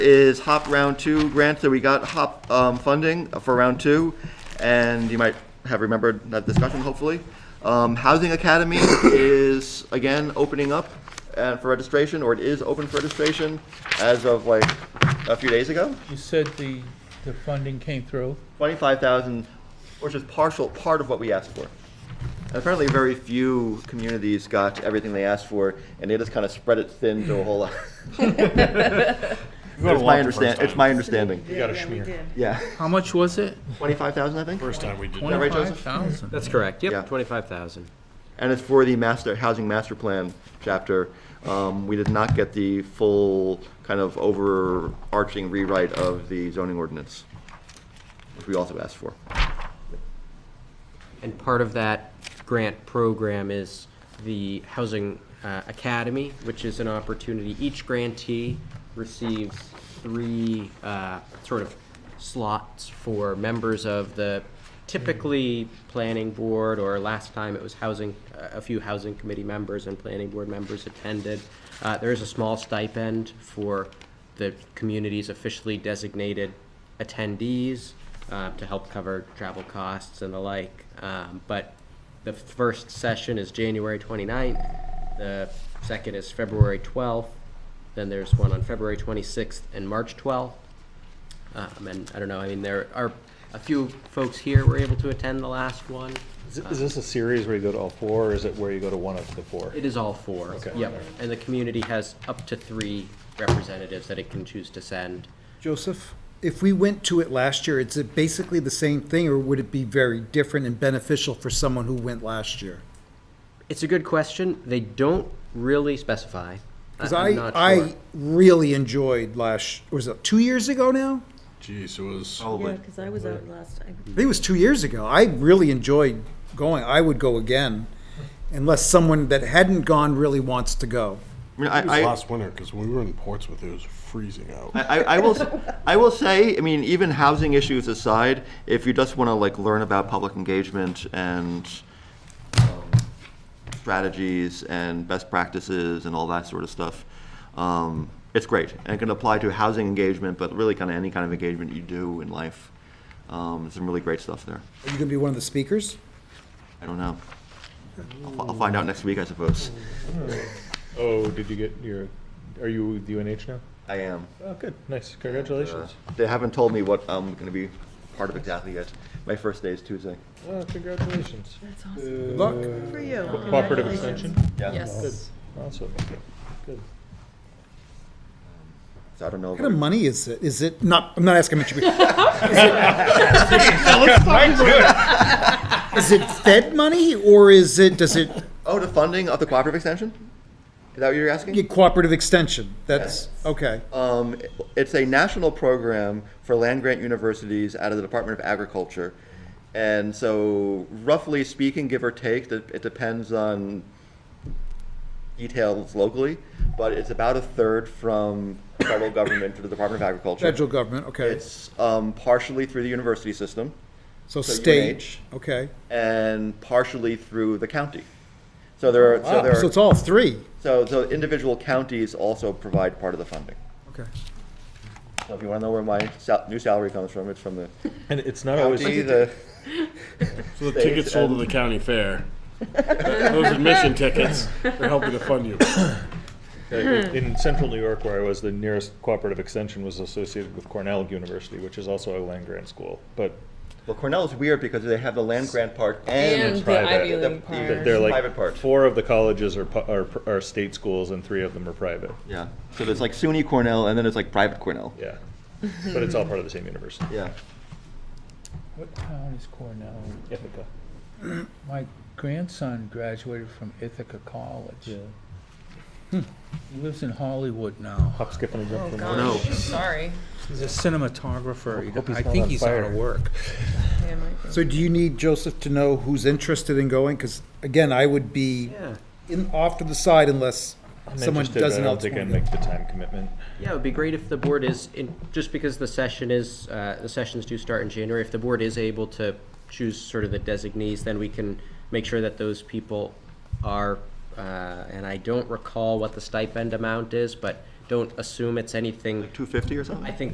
is HOP Round Two grant that we got HOP um, funding for Round Two, and you might have remembered that discussion, hopefully. Um, Housing Academy is, again, opening up uh, for registration, or it is open for registration as of like a few days ago. You said the, the funding came through. 25,000, which is partial, part of what we asked for. And apparently, very few communities got everything they asked for, and they just kind of spread it thin to a whole lot. It's my understanding, it's my understanding, You got a schmear. yeah. How much was it? 25,000, I think? First time we did that that. right, Joseph? Twenty-five thousand. That's correct, Yeah. yep, twenty-five thousand. And it's for the master, housing master plan chapter. Um, We did not get the full kind of overarching rewrite of the zoning ordinance, which we also asked for. And part of that grant program is the Housing uh, Academy, which is an opportunity, each grantee receives three uh, sort of slots for members of the typically planning board, or last time it was housing, uh, a few housing committee members and planning board members attended. Uh, There is a small stipend for the community's officially designated attendees uh, to help cover travel costs and the like. Um, But the first session is January 29th, the second is February 12th, then there's one on February 26th and March 12th. Um, And I don't know, I mean, there are, a few folks here were able to attend the last one. Is is this a series where you go to all four, or is it where you go to one of the four? It is all four. Okay. Yep, and the community has up to three representatives that it can choose to send. Joseph, if we went to it last year, is it basically the same thing, or would it be very different and beneficial for someone who went last year? It's a good question. They don't really specify. Because I'm I, not sure. I really enjoyed last, was it two years ago now? Jeez, it was. Oh, Yeah, because I was out last time. I think it was two years ago. I really enjoyed going. I would go again, unless someone that hadn't gone really wants to go. I mean, It was I- I- last winter because when we were in Portsmouth, it was freezing out. I, I- I will, s- I will say, I mean, even housing issues aside, if you just want to like learn about public engagement and um, strategies and best practices and all that sort of stuff, um, it's great. And it can apply to housing engagement, but really kind of any kind of engagement you do in life. Um, there's some really great stuff there. Are you going to be one of the speakers? I don't know. I'll, fi- I'll find out next week, I suppose. Oh, did you get your, are you with UNH now? I am. Oh, good, nice, congratulations. They haven't told me what I'm going to be part of exactly yet. My first day is Tuesday. Oh, congratulations. Uh, That's awesome. Good luck. For you. Cooperative Congratulations. Extension? Yeah. Yes. Awesome, good. So I don't know. What kind of money is it? Is it not? I'm not asking how much. you- Is it Fed money or is it? Does it Oh, the funding of the cooperative extension? Is that what you're asking? get cooperative extension? That's okay. Um, it's a national program for land grant universities out of the Department of Agriculture. And so roughly speaking, give or take, that- it depends on details locally, but it's about a third from federal government to the Department of Agriculture. Federal government. Okay. It's, um, partially through the university system. so so state. UNH. Okay. and partially through the county. So there are, so Wow, there Ah, so it's are, all three. so, so individual counties also provide part of the funding. Okay. So if you want to know where my sal- new salary comes from, it's from the And it's not always, county, the, So the tickets sold to the county fair, those admission tickets, they're helping to fund you. uh, in central New York where I was, the nearest cooperative extension was associated with Cornell University, which is also a land grant school, but well, Cornell is weird because they have the land grant part and it's And the private. Ivy The- League the- They're- part. They're Private like, part. four of the colleges are, pu- are, are state schools and three of them are private. yeah. So there's like SUNY Cornell and then it's like private Cornell. Yeah. But it's all part of the same university. Yeah. What town is Cornell? Ithaca. My grandson graduated from Ithaca College. He lives in Hollywood now. Hop, skip, and a jump Oh, from gosh. there. Sorry. He's a cinematographer. Hope he's I not think on he's out of fire. work. Yeah, might be. So do you need Joseph to know who's interested in going? Because again, I would be Yeah. in off to the side unless I'm someone interested, but doesn't I don't else think want I'd to make go. the time commitment. Yeah, it would be great if the board is, in- just because the session is, uh, the sessions do start in January, if the board is able to choose sort of the designees, then we can make sure that those people are, uh, and I don't recall what the stipend amount is, but don't assume it's anything. Two fifty or something? I think